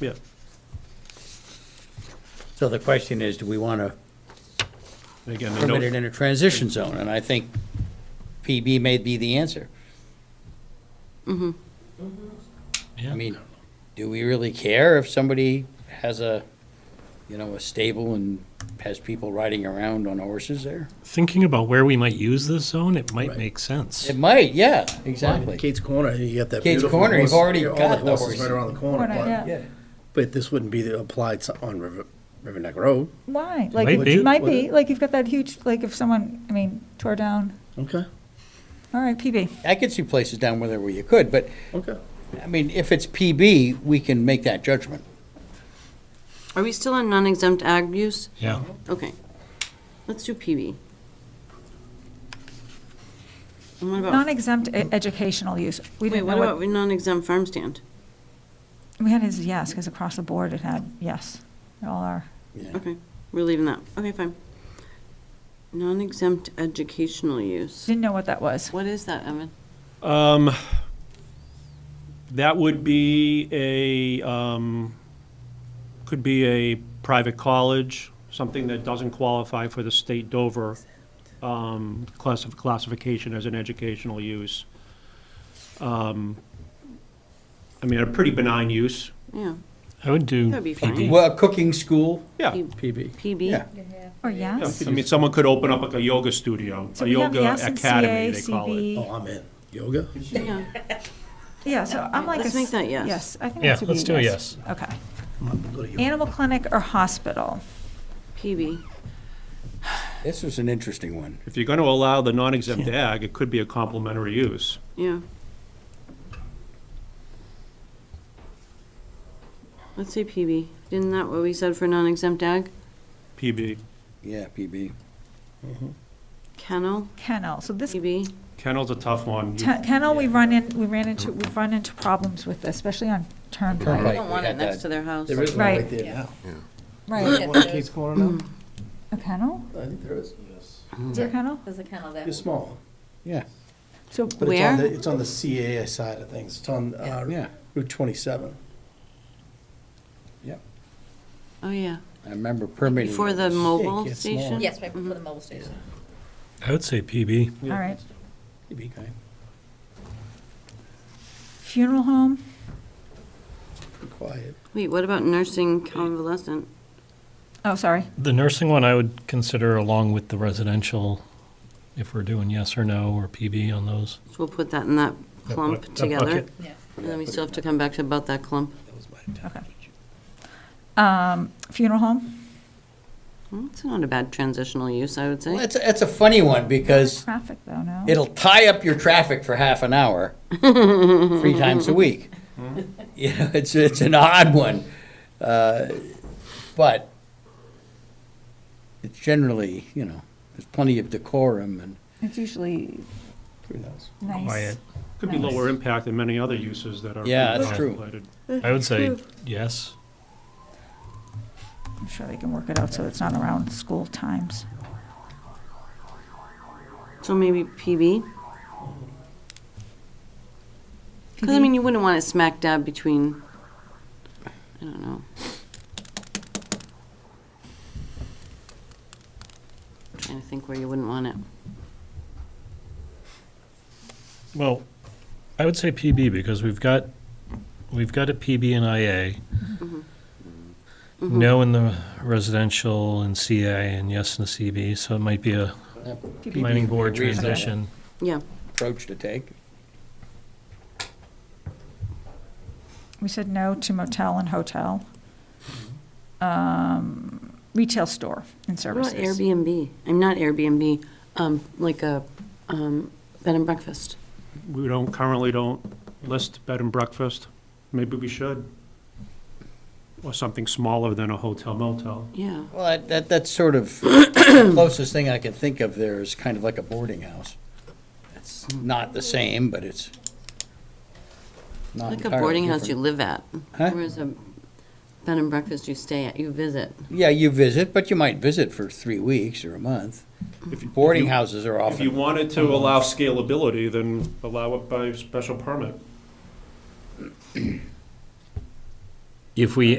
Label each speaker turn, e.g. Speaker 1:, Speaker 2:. Speaker 1: Yeah.
Speaker 2: So the question is, do we want to
Speaker 1: Again, the
Speaker 2: permit it
Speaker 1: note,
Speaker 2: in a transition zone? And I think PB may be the answer. I mean, do we really care if somebody has a, you know, a stable and has people riding around on horses there?
Speaker 1: thinking about where we might use this zone, it might
Speaker 3: Right.
Speaker 1: make sense.
Speaker 2: It might, yeah,
Speaker 3: Well, I mean,
Speaker 2: exactly.
Speaker 3: Kate's Corner, you got that
Speaker 2: Kate's
Speaker 3: beautiful
Speaker 2: Corner, you've
Speaker 3: horse-
Speaker 2: already
Speaker 3: all
Speaker 2: got the
Speaker 3: horses
Speaker 2: horses.
Speaker 3: Right around the corner,
Speaker 4: Corner,
Speaker 3: but,
Speaker 4: yeah.
Speaker 2: Yeah,
Speaker 3: but this wouldn't be the- applied to- on River, River Neck Road.
Speaker 4: Why? Like,
Speaker 1: might be.
Speaker 4: it might
Speaker 3: Would
Speaker 4: be,
Speaker 3: it?
Speaker 4: like, you've got that huge, like, if someone, I mean, tore down,
Speaker 3: Okay,
Speaker 4: all right, PB.
Speaker 2: I could see places down where there where you could, but,
Speaker 3: okay.
Speaker 2: I mean, if it's PB, we can make that judgment.
Speaker 5: Are we still on non-exempt ag use?
Speaker 1: Yeah.
Speaker 5: Okay. Let's do PB. And what about,
Speaker 4: Non-exempt e- educational use. We
Speaker 5: wait,
Speaker 4: didn't
Speaker 5: what
Speaker 4: know
Speaker 5: about
Speaker 4: what,
Speaker 5: non-exempt farm stand?
Speaker 4: we had his yes, because across the board it had yes. They all are.
Speaker 2: Yeah.
Speaker 5: Okay, we're leaving that. Okay, fine. Non-exempt educational use.
Speaker 4: Didn't know what that was.
Speaker 5: What is that, Evan?
Speaker 1: Um, that would be a, um, could be a private college, something that doesn't qualify for the state Dover, um, classif- classification as an educational use. Um, I mean, a pretty benign use.
Speaker 5: Yeah,
Speaker 6: I would do
Speaker 5: that'd be fine.
Speaker 2: Well, a cooking school,
Speaker 1: Yeah.
Speaker 5: P-
Speaker 3: PB.
Speaker 2: yeah.
Speaker 5: PB?
Speaker 4: Or
Speaker 1: Yeah,
Speaker 4: yes?
Speaker 1: I mean, someone could open up like a yoga studio,
Speaker 4: So
Speaker 1: a
Speaker 4: we have
Speaker 1: yoga
Speaker 4: yes in CA,
Speaker 1: academy, they call it.
Speaker 4: CB.
Speaker 3: Oh, I'm in. Yoga?
Speaker 5: Yeah.
Speaker 4: Yeah, so I'm like. a
Speaker 5: Let's make
Speaker 4: s-
Speaker 5: that yes.
Speaker 4: Yes, I think
Speaker 6: Yeah,
Speaker 4: that should be
Speaker 6: let's do a
Speaker 4: Okay.
Speaker 3: Go to yoga.
Speaker 4: Animal clinic or hospital?
Speaker 5: PB.
Speaker 2: This is an interesting one.
Speaker 1: If you're going to allow the non-exempt ag, it could be a complementary use.
Speaker 5: Yeah. Let's say PB. Isn't that what we said for non-exempt ag?
Speaker 1: PB,
Speaker 2: Yeah, PB.
Speaker 5: Kennel,
Speaker 4: Kennel. So this
Speaker 5: PB.
Speaker 1: kennel's a tough one. You-
Speaker 4: Ten- Kennel, we run in, we ran into, we've run into problems with, this, especially on
Speaker 5: I
Speaker 2: Right,
Speaker 4: turnpike.
Speaker 5: don't
Speaker 2: we
Speaker 5: want
Speaker 2: got
Speaker 5: it next
Speaker 2: that.
Speaker 5: to their house.
Speaker 3: There is one right
Speaker 4: Right.
Speaker 3: there now.
Speaker 4: Right.
Speaker 3: One at Kate's Corner now?
Speaker 4: A kennel?
Speaker 3: I think there is.
Speaker 4: Is there a kennel?
Speaker 7: There's a kennel there.
Speaker 3: It's small.
Speaker 2: Yeah,
Speaker 4: So
Speaker 3: But it's on
Speaker 5: Where?
Speaker 3: the, it's on the CAA side of things. It's on,
Speaker 2: Yeah.
Speaker 3: uh, Route twenty-seven.
Speaker 5: Oh, yeah.
Speaker 2: I remember permitting.
Speaker 5: Before the
Speaker 2: was-
Speaker 5: mobile
Speaker 3: it's small.
Speaker 5: station?
Speaker 7: Yes, right before the mobile station.
Speaker 6: I would say PB.
Speaker 4: All right.
Speaker 2: Okay.
Speaker 4: Funeral home,
Speaker 3: Be Quiet.
Speaker 5: Wait, what about nursing convalescent?
Speaker 4: oh, sorry.
Speaker 6: The nursing one I would consider along with the residential, if we're doing yes or no or PB on those.
Speaker 5: So we'll put that in that
Speaker 6: bu-
Speaker 5: clump
Speaker 6: that
Speaker 5: together.
Speaker 6: bucket.
Speaker 7: Yeah.
Speaker 5: And then we still have to come back to about that clump.
Speaker 4: Um, Funeral home,
Speaker 5: Well, It's not a bad transitional use, I would
Speaker 2: Well,
Speaker 5: say.
Speaker 2: that's, that's a funny one because
Speaker 4: traffic though, no?
Speaker 2: it'll tie up your traffic for half an hour, three times a week.
Speaker 5: Mm-hmm.
Speaker 2: You know, it's, it's an odd one. Uh, But it's generally, you know, there's plenty of decorum and
Speaker 4: It's usually
Speaker 3: Pretty nice.
Speaker 4: nice.
Speaker 6: Quiet.
Speaker 1: Could be lower impact than many other uses that are.
Speaker 2: Yeah, that's true.
Speaker 1: regulated.
Speaker 6: I would say yes.
Speaker 4: I'm sure they can work it out so it's not around school times.
Speaker 5: So maybe PB? Because, I mean, you wouldn't want it smack dab between, I don't know. Trying to think where you wouldn't want it.
Speaker 6: Well, I would say PB because we've got, we've got a PB and IA. No in the residential and CA and yes in the CB, so it might be a planning board
Speaker 2: Reasonable.
Speaker 6: transition.
Speaker 5: Yeah,
Speaker 2: approach to take.
Speaker 4: We said no to motel and hotel.
Speaker 3: Mm-hmm.
Speaker 4: Um, Retail store and
Speaker 5: what about
Speaker 4: services.
Speaker 5: Airbnb? I'm not Airbnb, um, like a, um, bed and breakfast.
Speaker 1: We don't, currently don't list bed and breakfast. Maybe we should. Or something smaller than a hotel motel.
Speaker 5: Yeah.
Speaker 2: Well, that- that, that's sort of the closest thing I can think of there is kind of like a boarding house. It's not the same, but it's not
Speaker 5: Like a
Speaker 2: entirely
Speaker 5: boarding house you
Speaker 2: different.
Speaker 5: live at,
Speaker 2: Huh?
Speaker 5: whereas a bed and breakfast you stay at, you visit.
Speaker 2: Yeah, you visit, but you might visit for three weeks or a month.
Speaker 1: If you-
Speaker 2: Boarding houses are
Speaker 1: If you
Speaker 2: often,
Speaker 1: wanted to allow scalability, then allow it by special permit.
Speaker 6: If we